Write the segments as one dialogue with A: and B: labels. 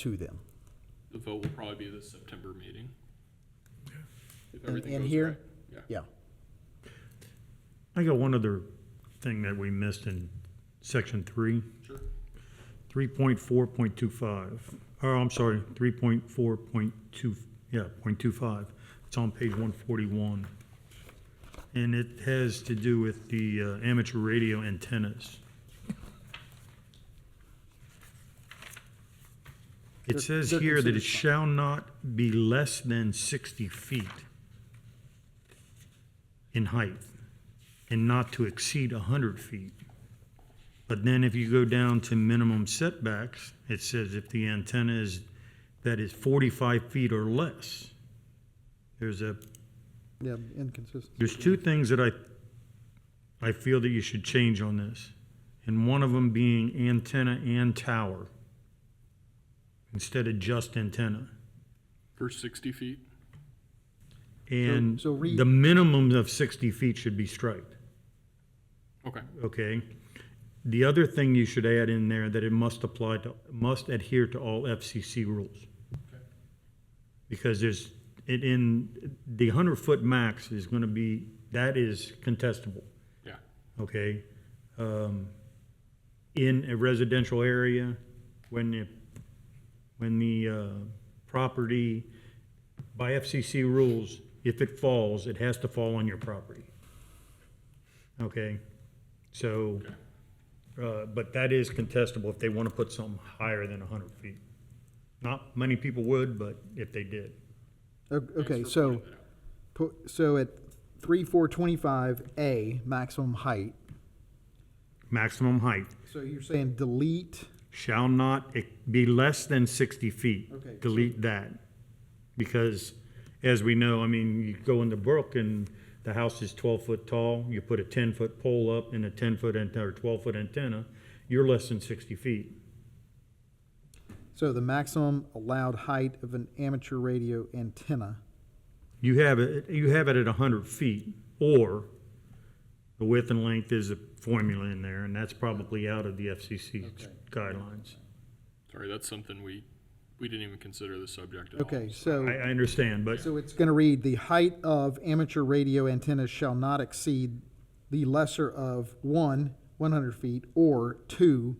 A: to them.
B: The vote will probably be the September meeting. If
A: And-
B: everything
A: and
B: goes
A: here?
B: right. Yeah.
A: Yeah.
C: I got one other thing that we missed in section three,
B: Sure.
C: three point four point two five. Oh, I'm sorry, three point four point two, yeah, point two five. It's on page one forty-one. And it has to do with the uh, amateur radio antennas. It
A: They're-
C: says
A: they're
C: here that
A: considered
C: it
A: small.
C: shall not be less than sixty feet in height and not to exceed 100 feet. But then if you go down to minimum setbacks, it says if the antenna is, that is 45 feet or less. There's a,
D: Yeah, inconsistent.
C: there's two things that I, I feel that you should change on this. And one of them being antenna and tower instead of just antenna.
B: For sixty feet,
C: And
D: so read-
C: the minimum of 60 feet should be striped.
B: okay.
C: Okay. The other thing you should add in there that it must apply to, must adhere to all FCC rules. Because there's, it in, the hundred foot max is gonna be, that is contestable,
B: Yeah,
C: okay? Um, In a residential area, when the, when the, uh, property, by FCC rules, if it falls, it has to fall on your property. Okay, so,
B: Okay.
C: uh, but that is contestable if they want to put something higher than hundred feet. Not many people would, but if they did.
D: O- Okay,
B: Thanks for
D: so,
B: pointing that out.
D: pu- so at three, four, twenty-five, A, maximum height.
C: Maximum height
D: So you're saying delete,
C: shall not e- be less than sixty feet.
D: Okay.
C: Delete that, because as we know, I mean, you go in the brook and the house is twelve foot tall, you put a ten foot pole up and a ten foot antenna, or twelve foot antenna, you're less than sixty feet.
D: so the maximum allowed height of an amateur radio antenna.
C: You have it, you have it at hundred feet, or the width and length is a formula in there, and that's probably out of the FCC guidelines.
B: Sorry, that's something we, we didn't even consider the subject at all.
D: Okay,
C: I,
D: so,
C: I understand, but
D: so it's gonna read, the height of amateur radio antennas shall not exceed the lesser of one, one hundred feet, or two,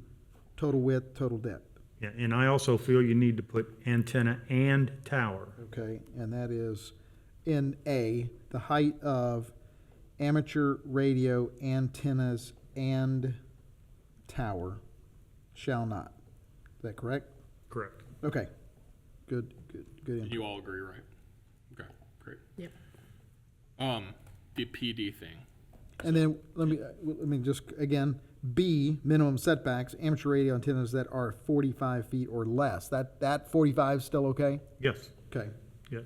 D: total width, total depth.
C: Yeah, and I also feel you need to put antenna and tower.
D: Okay, and that is in A, the height of amateur radio antennas and tower shall not. Is that correct?
C: Correct.
D: Okay, good, good, good. input.
B: You all agree, right? Okay, great. Yep. Um, the PD thing,
D: And then, let me, uh, let me just, again, B, minimum setbacks, amateur radio antennas that are forty-five feet or less. That, that forty-five still okay?
C: Yes,
D: Okay,
C: yes.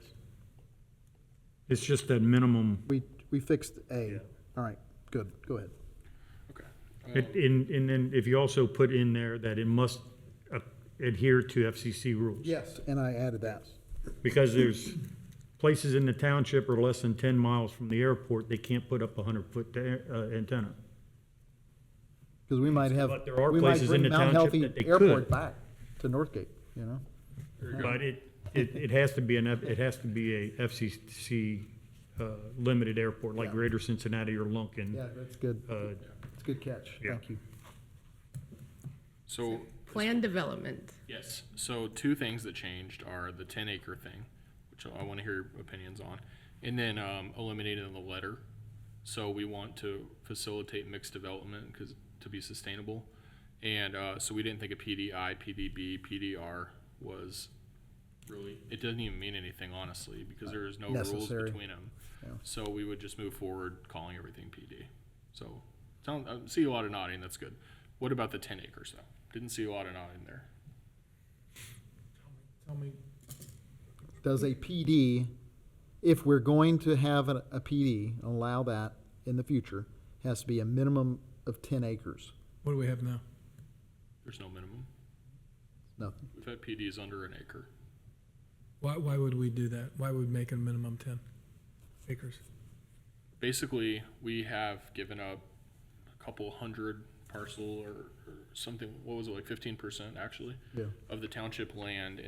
C: It's just that minimum,
D: we, we fixed
C: Yeah.
D: A. All right, good, go ahead.
B: okay.
C: it- and, and then if you also put in there that it must uh, adhere to FCC rules.
D: Yes, and I added that.
C: Because there's places in the township are less than ten miles from the airport, they can't put up a hundred-foot uh, antenna.
D: Because we might have,
C: But there are
D: we might
C: places
D: bring
C: in the
D: Mount
C: township
D: Healthy
C: that they
D: Airport
C: could.
D: back to Northgate, you know?
C: But it, it, it has to be an, F- it has to be a FCC, uh, limited airport, like Greater Cincinnati or Lunkin.
D: Yeah, that's good,
C: Mm-hmm. Uh,
D: it's a good catch,
C: Yeah.
D: thank you.
B: So,
E: Plan development.
B: yes, so two things that changed are the ten acre thing, which I wanna hear your opinions on, and then, um, eliminating the letter. So we want to facilitate mixed development, cause, to be sustainable. And, uh, so we didn't think a PDI, PDB, PDR was really, it doesn't even mean anything honestly, because there is no rules
D: Necessary.
B: between them.
D: Yeah.
B: So we would just move forward calling everything PD. So, sound, I see a lot of nodding, that's good. What about the ten acres though? Didn't see a lot of nodding there.
D: Does a PD, if we're going to have a, a PD, allow that in the future, has to be a minimum of ten acres,
F: What do we have now?
B: There's no minimum.
D: nothing.
B: We've had PDs under an acre.
F: Why, why would we do that? Why would we make it a minimum ten acres?
B: Basically, we have given up a couple hundred parcel or, or something, what was it, like fifteen percent actually?
D: Yeah.
B: Of the township land